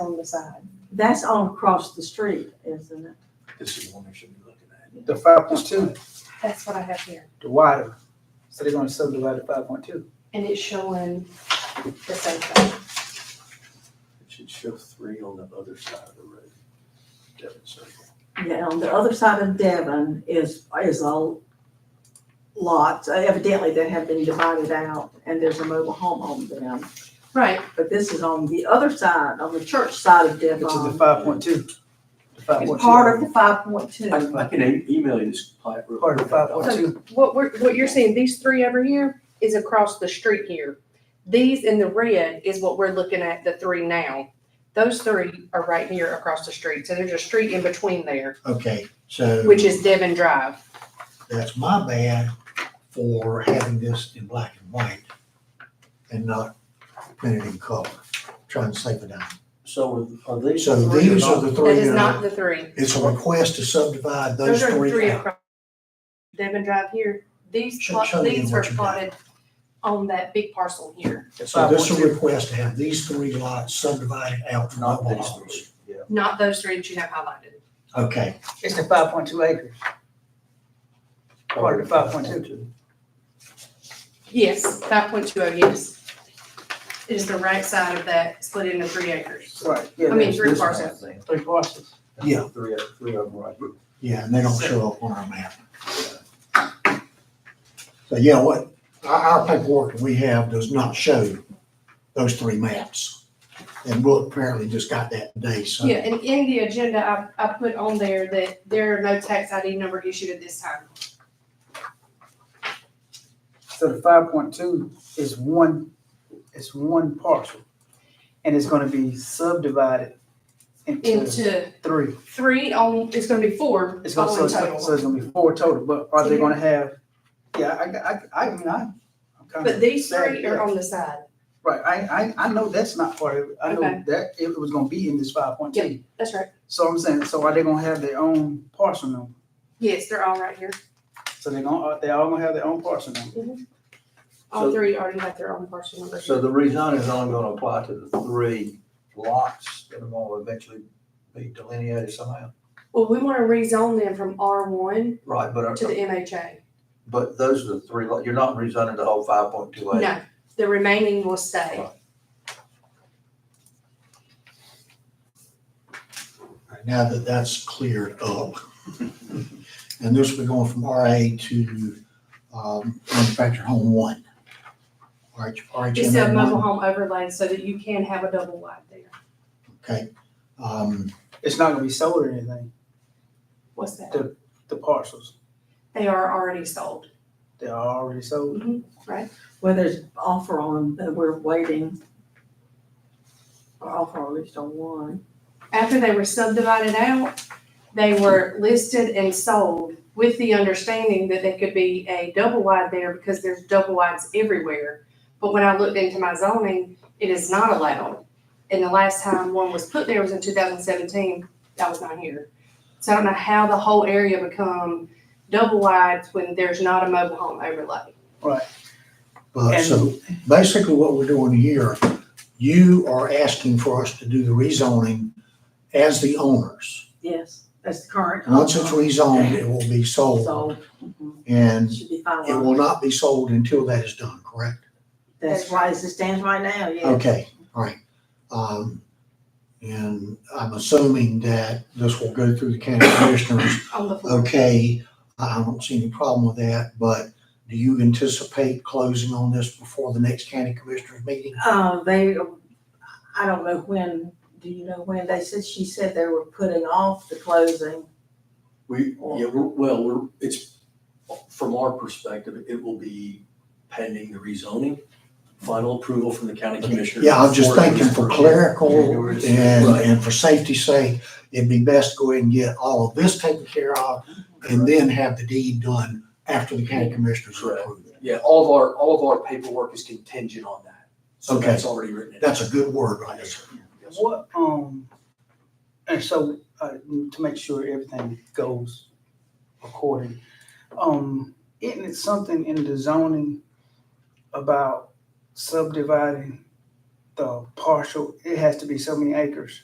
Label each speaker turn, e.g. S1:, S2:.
S1: on the side.
S2: That's all across the street, isn't it?
S3: This is the one they should be looking at.
S4: The five point two,
S1: That's what I have here.
S4: the wider, so they're gonna subdivide the five point two.
S1: And it's showing the same thing.
S3: It should show three on the other side of the road. Devon Circle.
S2: Yeah, on the other side of Devon is, is a lot, evidently that have been divided out, and there's a mobile home on them.
S1: Right.
S2: But this is on the other side, on the church side of
S4: Which
S2: Devon.
S4: is the five point two. The five point
S2: It's
S4: two.
S2: part of the five point two.
S3: I, I can e- email you this plat. real
S4: Part of
S3: quick.
S4: five point two,
S5: What we're, what you're seeing, these three over here is across the street here. These in the red is what we're looking at, the three now. Those three are right here across the street, so there's a street in between there,
S6: Okay, so
S5: which is Devon Drive.
S6: that's my bad for having this in black and white and not printed in color, trying to save it down.
S3: So are are these?
S6: So
S3: three or
S6: these
S3: not?
S6: are the
S5: That
S6: three
S5: is
S6: that
S5: not
S6: are,
S5: the three.
S6: it's a request to subdivide those
S5: Those are the
S6: three out.
S5: across Devon Drive here. These,
S6: Show-
S5: plot-
S6: show me again
S5: these
S6: what
S5: are
S6: you got.
S5: plotted on that big parcel here,
S6: So this is a request to have these three lots subdivided out from
S3: Not
S6: all
S3: these
S6: lots.
S3: three, yeah.
S5: not those three that you have highlighted.
S6: Okay,
S4: it's the five point two acres, part of the five point two.
S5: Yes, five point two oh, yes. It is the right side of that split into three acres.
S4: Right, yeah,
S5: I mean,
S4: there's
S5: three
S4: this one,
S5: parcels.
S4: Three parcels.
S6: Yeah.
S3: Three, of- three of them right here.
S6: yeah, and they don't show up on our map. So yeah, what, our, our paperwork that we have does not show those three maps. And Brooke apparently just got that today, so.
S5: Yeah, and in the agenda, I, I put on there that there are no tax ID number issued at this time.
S4: So the five point two is one, it's one parcel, and it's gonna be subdivided into
S5: Into
S4: three.
S5: three on, it's gonna be four
S4: It's
S5: all
S4: gonna, so
S5: in
S4: it's gonna, so
S5: total.
S4: it's gonna be four total, but are they
S5: Yeah.
S4: gonna have, yeah, I, I, I, I mean, I. I'm kinda
S5: But these
S4: sad,
S5: three
S4: yeah.
S5: are on the side.
S4: Right, I, I, I know that's not part of it, I know
S5: Okay.
S4: that it was gonna be in this five point two.
S5: That's right.
S4: So I'm saying, so are they gonna have their own parcel number?
S5: Yes, they're all right here.
S4: So they gonna, are they all gonna have their own parcel number?
S5: All
S3: So-
S5: three already have their own parcel number.
S3: So the rezoning is only gonna apply to the three lots that are gonna eventually be delineated somehow.
S5: Well, we wanna rezone them from R one
S3: Right, but,
S5: to the
S3: are-
S5: MHA.
S3: but those are the three, lot- you're not rezoning the whole five point two acre.
S5: No, the remaining will stay.
S6: Alright, Now that that's cleared up, and this will be going from RA to um, manufactured home one. RH
S5: It's a
S6: RHMA
S5: mobile
S6: one,
S5: home overlay so that you can have a double wide there.
S6: okay. Um,
S4: It's not gonna be sold or anything,
S5: What's that?
S4: The- the parcels,
S5: They are already sold.
S4: they are already sold.
S2: Well, there's an offer on, that we're waiting. Or offer at least on one.
S5: After they were subdivided out, they were listed and sold with the understanding that they could be a double wide there because there's double wides everywhere. But when I looked into my zoning, it is not allowed. And the last time one was put there was in two thousand seventeen. That was not here. So I don't know how the whole area become double wides when there's not a mobile home overlay.
S6: But so basically what we're doing here, you are asking for us to do the rezoning as the owners.
S2: Yes, that's the current.
S6: Once it's
S2: offer.
S6: rezoned, it will be sold
S2: So, mhm,
S6: and
S2: should be
S6: it will
S2: finalized.
S6: not be sold until that is done, correct?
S2: That's why as it stands right now, yeah.
S6: Okay, all right. Um, and I'm assuming that this will go through the county commissioners.
S5: on the floor.
S6: Okay, I don't see any problem with that, but do you anticipate closing on this before the next county commissioners meeting?
S2: Uh, they, I don't know when, do you know when? They said, she said they were putting off the closing.
S3: We, yeah, we're, well, we're, it's, from our perspective, it will be pending the rezoning, final approval from the county commissioner.
S6: Yeah, I'm just
S3: before it
S6: thinking
S3: is-
S6: for clerical
S3: January
S6: and,
S3: 6th. Right.
S6: and for safety's sake, it'd be best to go ahead and get all of this taken care of and then have the deed done after the county commissioners
S3: Correct.
S6: approve it.
S7: Yeah, all of our, all of our paperwork is contingent on that. So
S6: Okay.
S7: that's already written in.
S6: That's a good word right there.
S4: What, um, and so, uh, to make sure everything goes according, um, isn't it something in the zoning about subdividing the partial, it has to be so many acres?